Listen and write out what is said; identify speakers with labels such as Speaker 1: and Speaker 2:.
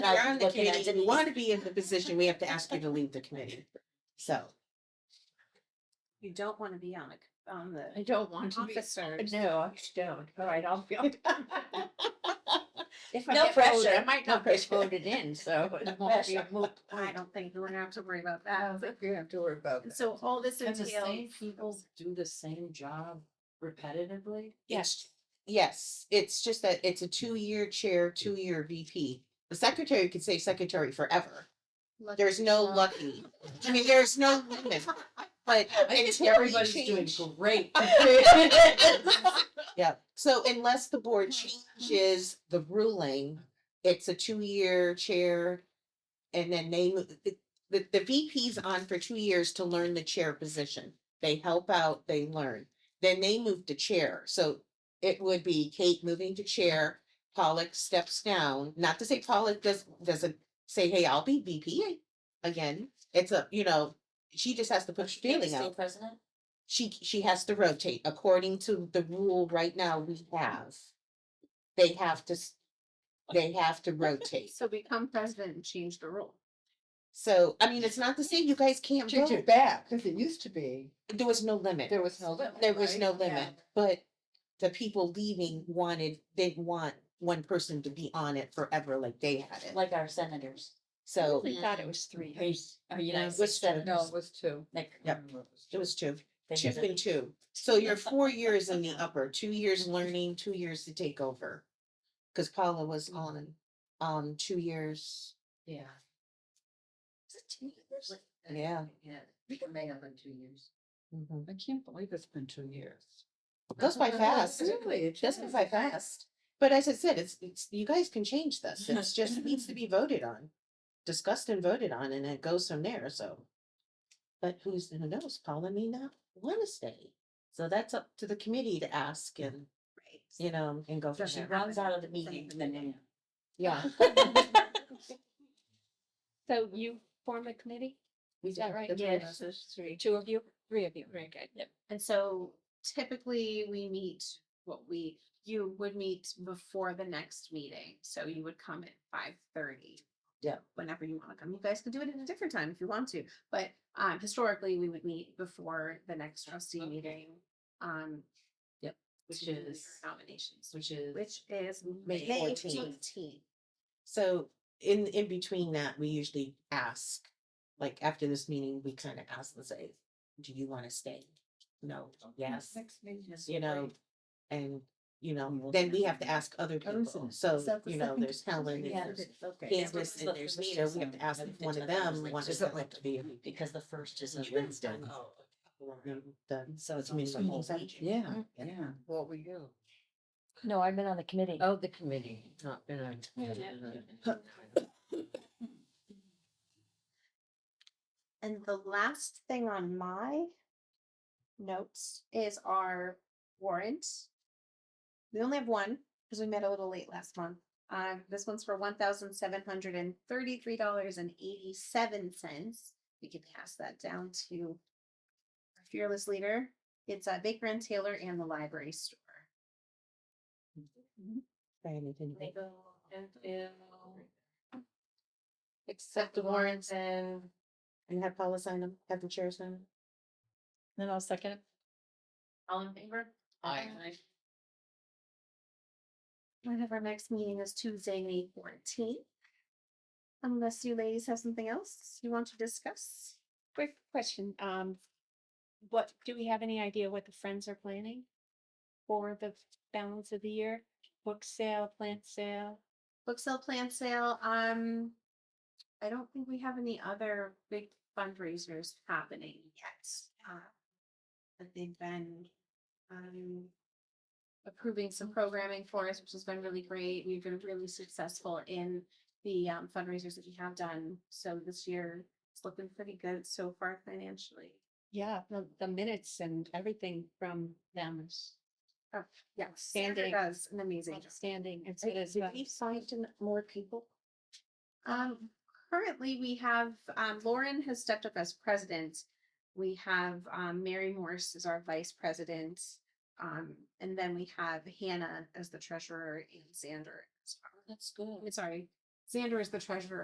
Speaker 1: I was
Speaker 2: You're on the
Speaker 1: looking at,
Speaker 2: committee.
Speaker 1: Didn't want to be in the position, we have to ask you to leave the committee. So,
Speaker 2: You don't want to be on a, on the
Speaker 3: I don't want to be.
Speaker 2: officers.
Speaker 3: No, I just don't. All right, I'll be. If I
Speaker 2: No
Speaker 3: get voted, I
Speaker 2: pressure.
Speaker 3: might
Speaker 1: No
Speaker 3: not get
Speaker 1: pressure.
Speaker 3: voted in, so it won't be a moot.
Speaker 2: I don't think we're gonna have to worry about
Speaker 3: I
Speaker 2: that.
Speaker 3: don't think we have to worry about
Speaker 2: And so all this
Speaker 4: And the same
Speaker 2: entails.
Speaker 4: people do the same job repetitively?
Speaker 1: yes, yes, it's just that it's a two-year chair, two-year VP. The secretary could say secretary forever. There's no lucky, I mean, there's no limit, but
Speaker 4: I think
Speaker 1: until you
Speaker 4: everybody's doing
Speaker 1: change.
Speaker 4: great.
Speaker 1: Yeah, so unless the board changes the ruling, it's a two-year chair. And then they, mo- the, the, the VP's on for two years to learn the chair position. They help out, they learn. Then they move to chair, so it would be Kate moving to chair, Pollock steps down, not to say Pollock does, doesn't say, hey, I'll be VP again. It's a, you know, she just has to put her feeling out
Speaker 4: president?
Speaker 1: she she has to rotate according to the rule right now we have. They have to s- they have to rotate.
Speaker 2: So become president and change the rule.
Speaker 1: So I mean, it's not the same. You guys can't
Speaker 3: Change
Speaker 1: vote.
Speaker 3: it back, because it used to be,
Speaker 1: There was no limit.
Speaker 3: there was no limit.
Speaker 1: There was
Speaker 3: right?
Speaker 1: no
Speaker 3: Yeah.
Speaker 1: limit. But the people leaving wanted didn't want one person to be on it forever like they had it.
Speaker 4: Like our senators.
Speaker 1: So
Speaker 3: I thought it was three years.
Speaker 4: Our United
Speaker 1: Which
Speaker 4: States
Speaker 1: senators?
Speaker 3: No,
Speaker 4: senators.
Speaker 3: it was two.
Speaker 4: Like,
Speaker 1: Yep.
Speaker 4: um,
Speaker 1: it was two,
Speaker 4: they
Speaker 1: two
Speaker 4: never-
Speaker 1: and two. So you're four years in the upper, two years learning, two years to take over. Because Paula was
Speaker 4: Mm-hmm.
Speaker 1: on um two years.
Speaker 4: Yeah. Is it two years?
Speaker 1: Yeah.
Speaker 4: Yeah, we can make up in two years.
Speaker 1: Mhm.
Speaker 3: I can't believe it's been two years.
Speaker 1: goes by fast.
Speaker 3: Really, it
Speaker 1: Just
Speaker 3: does.
Speaker 1: goes by fast. But as I said, it's, it's, you guys can change this. It's just it needs to be voted on. Discussed and voted on and it goes from there, so. But who's, who knows? Paula may not wanna stay. So that's up to the committee to ask and, you know, and go
Speaker 4: So
Speaker 1: from
Speaker 4: she
Speaker 1: there.
Speaker 4: runs out of the meeting, then.
Speaker 1: Yeah.
Speaker 5: So you form a committee,
Speaker 1: we
Speaker 5: is that
Speaker 1: do.
Speaker 5: right?
Speaker 1: That's what it is.
Speaker 3: There's three.
Speaker 5: two of you, three of you, very good.
Speaker 2: And so typically we meet, what we, you would meet before the next meeting, so you would come at five thirty.
Speaker 1: Yeah.
Speaker 2: Whenever you wanna come, you guys can do it at a different time if you want to, but um historically, we would meet before the next trustee
Speaker 4: Okay.
Speaker 2: meeting. Um.
Speaker 4: Yep. Which
Speaker 2: to hear
Speaker 4: is-
Speaker 2: Nominations,
Speaker 4: Which is.
Speaker 2: which is
Speaker 1: May
Speaker 2: May
Speaker 1: 14th.
Speaker 2: fourteenth.
Speaker 1: So in, in between that, we usually ask, like after this meeting, we kind of ask and say, do you wanna stay? No, yes.
Speaker 3: Next meeting is
Speaker 1: you know, and, you know,
Speaker 4: Mhm.
Speaker 1: then we have to ask other
Speaker 3: Oh, is
Speaker 1: people,
Speaker 3: it?
Speaker 1: so,
Speaker 3: Is that the
Speaker 1: you know,
Speaker 3: second
Speaker 1: there's Helen, and
Speaker 4: Yeah.
Speaker 1: there's
Speaker 4: Okay.
Speaker 1: Candace, and there's Nita, we have to ask if one of them wants to elect to be. a VP.
Speaker 4: Because the first is a
Speaker 1: Sure.
Speaker 4: Wednesday.
Speaker 1: Um, the-
Speaker 4: So it's
Speaker 1: I mean,
Speaker 4: almost
Speaker 1: the
Speaker 4: a whole
Speaker 1: whole
Speaker 4: week.
Speaker 1: week.
Speaker 3: Mm-hmm. Yeah, yeah. What were you?
Speaker 5: No, I've been on the committee.
Speaker 3: Oh, the committee, not been on.
Speaker 2: And the last thing on my notes is our warrant. We only have one because we met a little late last month. Um, this one's for one thousand seven hundred and thirty-three dollars and eighty-seven cents. We can pass that down to our fearless leader. It's uh, Baker and Taylor and the library store.
Speaker 1: Diana, can you-
Speaker 3: Accept the warrants and.
Speaker 1: And have Paula sign them, have the chair sign them.
Speaker 5: Then I'll second.
Speaker 2: All in favor?
Speaker 3: I.
Speaker 2: One of our next meeting is Tuesday, May fourteenth. Unless you ladies have something else you want to discuss?
Speaker 5: Quick question, um, what, do we have any idea what the Friends are planning? For the balance of the year, book sale, plant sale?
Speaker 2: Book sale, plant sale, um, I don't think we have any other big fundraisers happening yet. Uh, But they've been, um, approving some programming for us, which has been really great. We've been really successful in the um, fundraisers that we have done. So this year, it's looking pretty good so far financially.
Speaker 5: Yeah, the, the minutes and everything from them is
Speaker 2: Yeah, Sandra
Speaker 5: Standing.
Speaker 2: does an amazing job.
Speaker 5: outstanding. It's,
Speaker 1: Did
Speaker 5: it is,
Speaker 1: we sign to n- more people?
Speaker 2: Um, currently we have, um, Lauren has stepped up as president. We have, um, Mary Morse as our vice president. Um, and then we have Hannah as the treasurer and Xander. as our-
Speaker 4: That's good.
Speaker 2: I'm Sorry, Xander is the treasurer